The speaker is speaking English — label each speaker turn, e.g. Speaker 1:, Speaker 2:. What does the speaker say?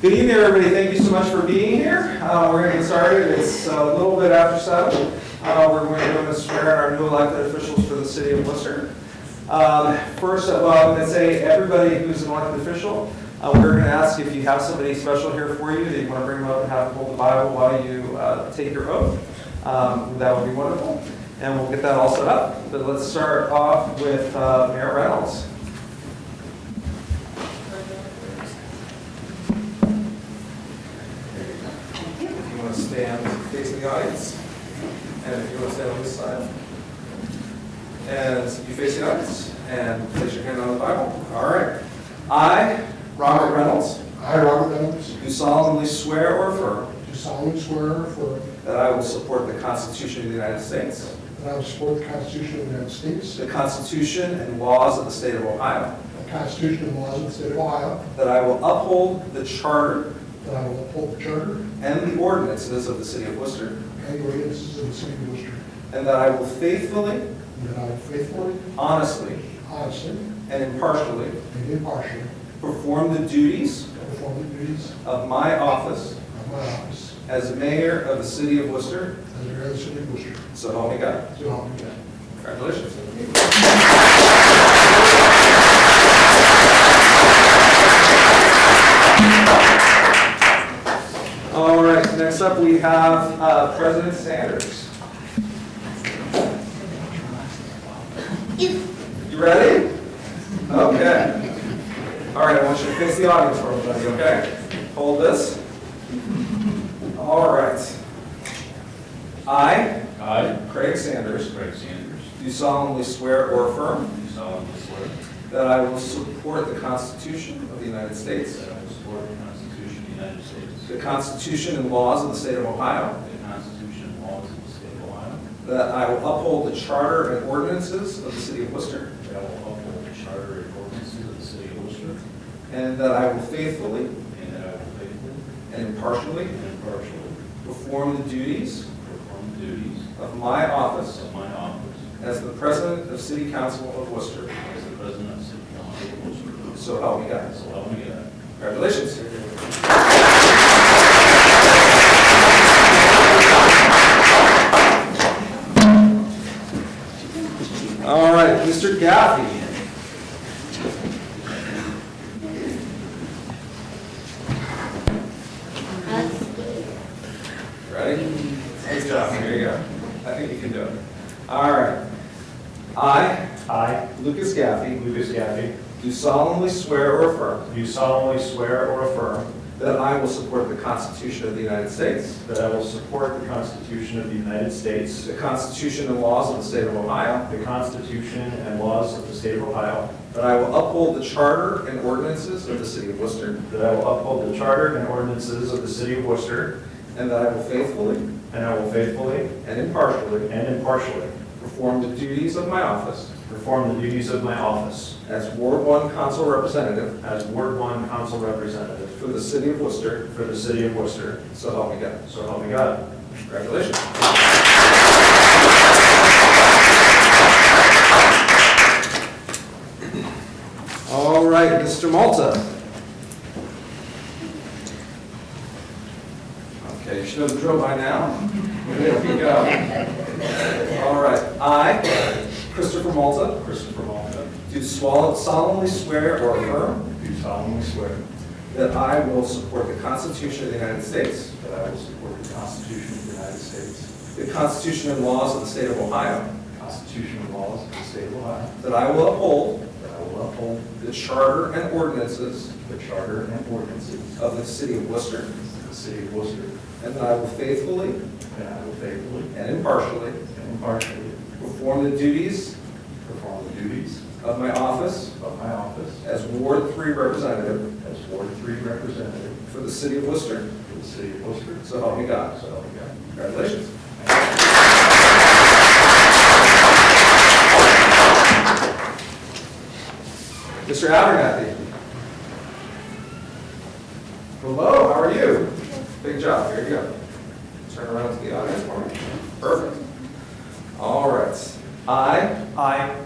Speaker 1: Good evening, everybody. Thank you so much for being here. Uh, We're going to get started. It's a little bit after seven. Uh, We're going to swear our new elected officials for the city of Worcester. Um, First, uh, well, I'm going to say, everybody who's an elected official, uh, we're going to ask if you have somebody special here for you that you want to bring up and have hold the Bible while you uh, take your oath. Um, That would be wonderful. And we'll get that all set up. But let's start off with uh, Mayor Reynolds. If you want to stand facing the audience, and if you want to stand on this side. And you face the audience, and place your hand on the Bible. All right. I, Robert Reynolds,
Speaker 2: I, Robert Reynolds,
Speaker 1: do solemnly swear or affirm
Speaker 2: do solemnly swear or affirm
Speaker 1: that I will support the Constitution of the United States,
Speaker 2: that I will support the Constitution of the United States,
Speaker 1: the Constitution and laws of the state of Ohio,
Speaker 2: the Constitution and laws of the state of Ohio,
Speaker 1: that I will uphold the charter
Speaker 2: that I will uphold the charter
Speaker 1: and the ordinances of the city of Worcester,
Speaker 2: and the ordinances of the city of Worcester,
Speaker 1: and that I will faithfully,
Speaker 2: and that I will faithfully,
Speaker 1: honestly,
Speaker 2: honestly,
Speaker 1: and impartially
Speaker 2: and impartially
Speaker 1: perform the duties
Speaker 2: perform the duties
Speaker 1: of my office
Speaker 2: of my office
Speaker 1: as mayor of the city of Worcester,
Speaker 2: as mayor of the city of Worcester,
Speaker 1: so help me God.
Speaker 2: so help me God.
Speaker 1: Congratulations. All right, next up, we have uh, President Sanders. You ready? Okay. All right, I want you to face the audience for me, buddy, okay? Hold this. All right. I,
Speaker 3: I,
Speaker 1: Craig Sanders,
Speaker 3: Craig Sanders,
Speaker 1: do solemnly swear or affirm
Speaker 3: do solemnly swear
Speaker 1: that I will support the Constitution of the United States,
Speaker 3: that I will support the Constitution of the United States,
Speaker 1: the Constitution and laws of the State of Ohio,
Speaker 3: the Constitution and laws of the state of Ohio,
Speaker 1: that I will uphold the Charter and ordinances of the City of Worcester,
Speaker 3: that I will uphold the charter and ordinances of the city of Worcester,
Speaker 1: and that I will faithfully
Speaker 3: and that I will faithfully
Speaker 1: and impartially
Speaker 3: and impartially
Speaker 1: perform the duties
Speaker 3: perform the duties
Speaker 1: of my office
Speaker 3: of my office
Speaker 1: as the President of City Council of Worcester.
Speaker 3: as the president of the city council of Worcester.
Speaker 1: So help me God.
Speaker 3: So help me God.
Speaker 1: Congratulations. All right, Mr. Gaffey. Ready? Good job, here you go. I think you can do it. All right. I,
Speaker 4: I,
Speaker 1: Lucas Gaffey,
Speaker 4: Lucas Gaffey,
Speaker 1: do solemnly swear or affirm
Speaker 4: do solemnly swear or affirm
Speaker 1: that I will support the Constitution of the United States,
Speaker 4: that I will support the Constitution of the United States,
Speaker 1: the Constitution and laws of the State of Ohio,
Speaker 4: the Constitution and laws of the state of Ohio,
Speaker 1: that I will uphold the charter and ordinances of the City of Worcester,
Speaker 4: that I will uphold the charter and ordinances of the city of Worcester,
Speaker 1: and that I will faithfully
Speaker 4: and I will faithfully
Speaker 1: and impartially
Speaker 4: and impartially
Speaker 1: perform the duties of my office
Speaker 4: perform the duties of my office
Speaker 1: as Ward One Council Representative
Speaker 4: as Ward One Council Representative
Speaker 1: for the City of Worcester,
Speaker 4: for the city of Worcester.
Speaker 1: so help me God.
Speaker 4: So help me God.
Speaker 1: Congratulations. All right, Mr. Malta. Okay, you should know the drill by now. There we go. All right, I, Christopher Malta,
Speaker 4: Christopher Malta,
Speaker 1: do swallow- solemnly swear or affirm
Speaker 4: do solemnly swear
Speaker 1: that I will support the Constitution of the United States,
Speaker 4: that I will support the Constitution of the United States,
Speaker 1: the Constitution and laws of the State of Ohio,
Speaker 4: the Constitution and laws of the state of Ohio,
Speaker 1: That I will uphold
Speaker 4: That I will uphold
Speaker 1: the charter and ordinances
Speaker 4: the charter and ordinances
Speaker 1: of the city of Worcester.
Speaker 4: of the city of Worcester,
Speaker 1: And that I will faithfully
Speaker 4: and I will faithfully
Speaker 1: and impartially
Speaker 4: and impartially
Speaker 1: perform the duties
Speaker 4: perform the duties
Speaker 1: of my office
Speaker 4: of my office
Speaker 1: as Ward Three Representative
Speaker 4: as Ward Three Representative
Speaker 1: for the city of Worcester.
Speaker 4: for the city of Worcester.
Speaker 1: So help me God.
Speaker 4: So help me God.
Speaker 1: Congratulations. Mr. Abernathy. Hello, how are you? Big job, here you go. Turn around to the audience for me. Perfect. All right. I. I.